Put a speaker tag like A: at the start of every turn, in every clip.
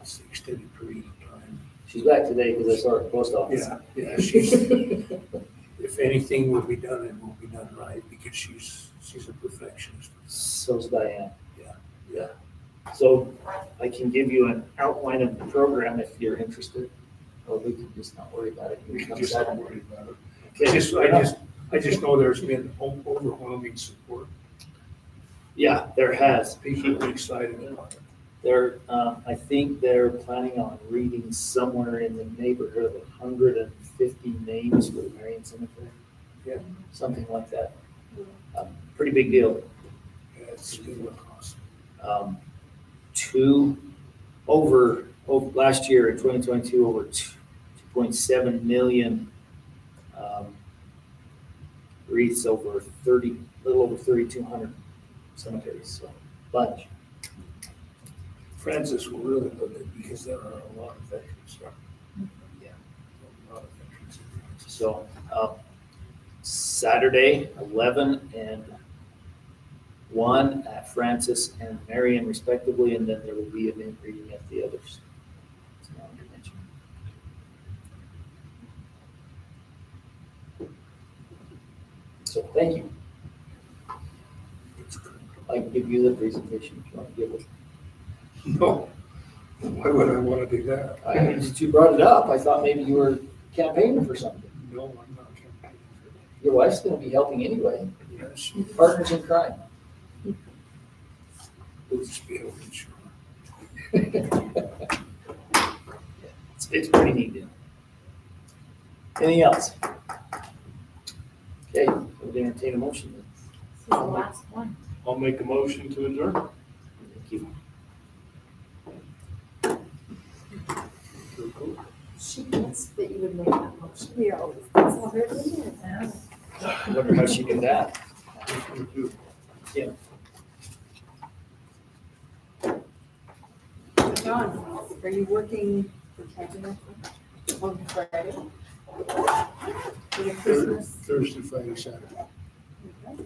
A: It's extended period of time.
B: She's back today because I saw her at the post office.
A: Yeah, yeah, she's, if anything will be done, it will be done right, because she's, she's a perfectionist.
B: So's Diane.
A: Yeah, yeah.
B: So I can give you an outline of the program if you're interested, or we can just not worry about it. You
A: We
B: can
A: can
B: come
A: just
B: Saturday.
A: not worry about it. I
B: Okay.
A: just, I just, I just know there's been o- overwhelming support.
B: Yeah, there has.
A: People are excited about it.
B: They're, um, I think they're planning on reading somewhere in the neighborhood of hundred and fifty names for the Marion Cemetery.
A: Yeah.
B: Something like that. Um, Pretty big deal.
A: Yeah, It's been awesome.
B: um, two over, over last year in 2022 over t- 2.7 million um, wreaths over 30 little over 3200 cemeteries so bunch
A: Francis will really love it, because there are a lot of veterans there.
B: Yeah.
A: A lot of veterans. in Francis.
B: so um, saturday 11 and 1 at francis and marion respectively and then there will be an event reading at the others It's not under mention. so thank you
A: It's good.
B: i can give you the presentation if you want to give it
A: No, why would I want to do that?
B: I, since you brought it up i thought maybe you were campaigning for something
A: No, I'm not campaigning for
B: your wife's going to be helping anyway
A: that. Yes, she is.
B: partners in crime
A: Let's be able to show.
B: It's, it's pretty neat, deal. Anything else? Okay, we'll entertain a motion then.
C: This is the last one.
D: I'll make a motion to adjourn.
B: Thank you.
C: She gets that you would make that motion. We are always, that's all her doing now.
B: I wonder how she did that.
C: John, are you working for cabinet on Friday? For your Christmas?
A: Thursday, Friday, Saturday.
C: Okay.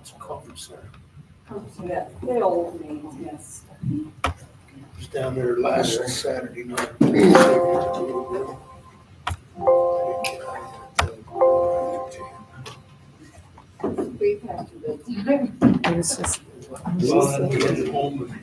A: It's a conference center.
C: So that They all made yes.
A: I was down there last Saturday night. I didn't get out of it till
C: We've had to do that time.
E: It was just
A: ten. Well, I had to get home and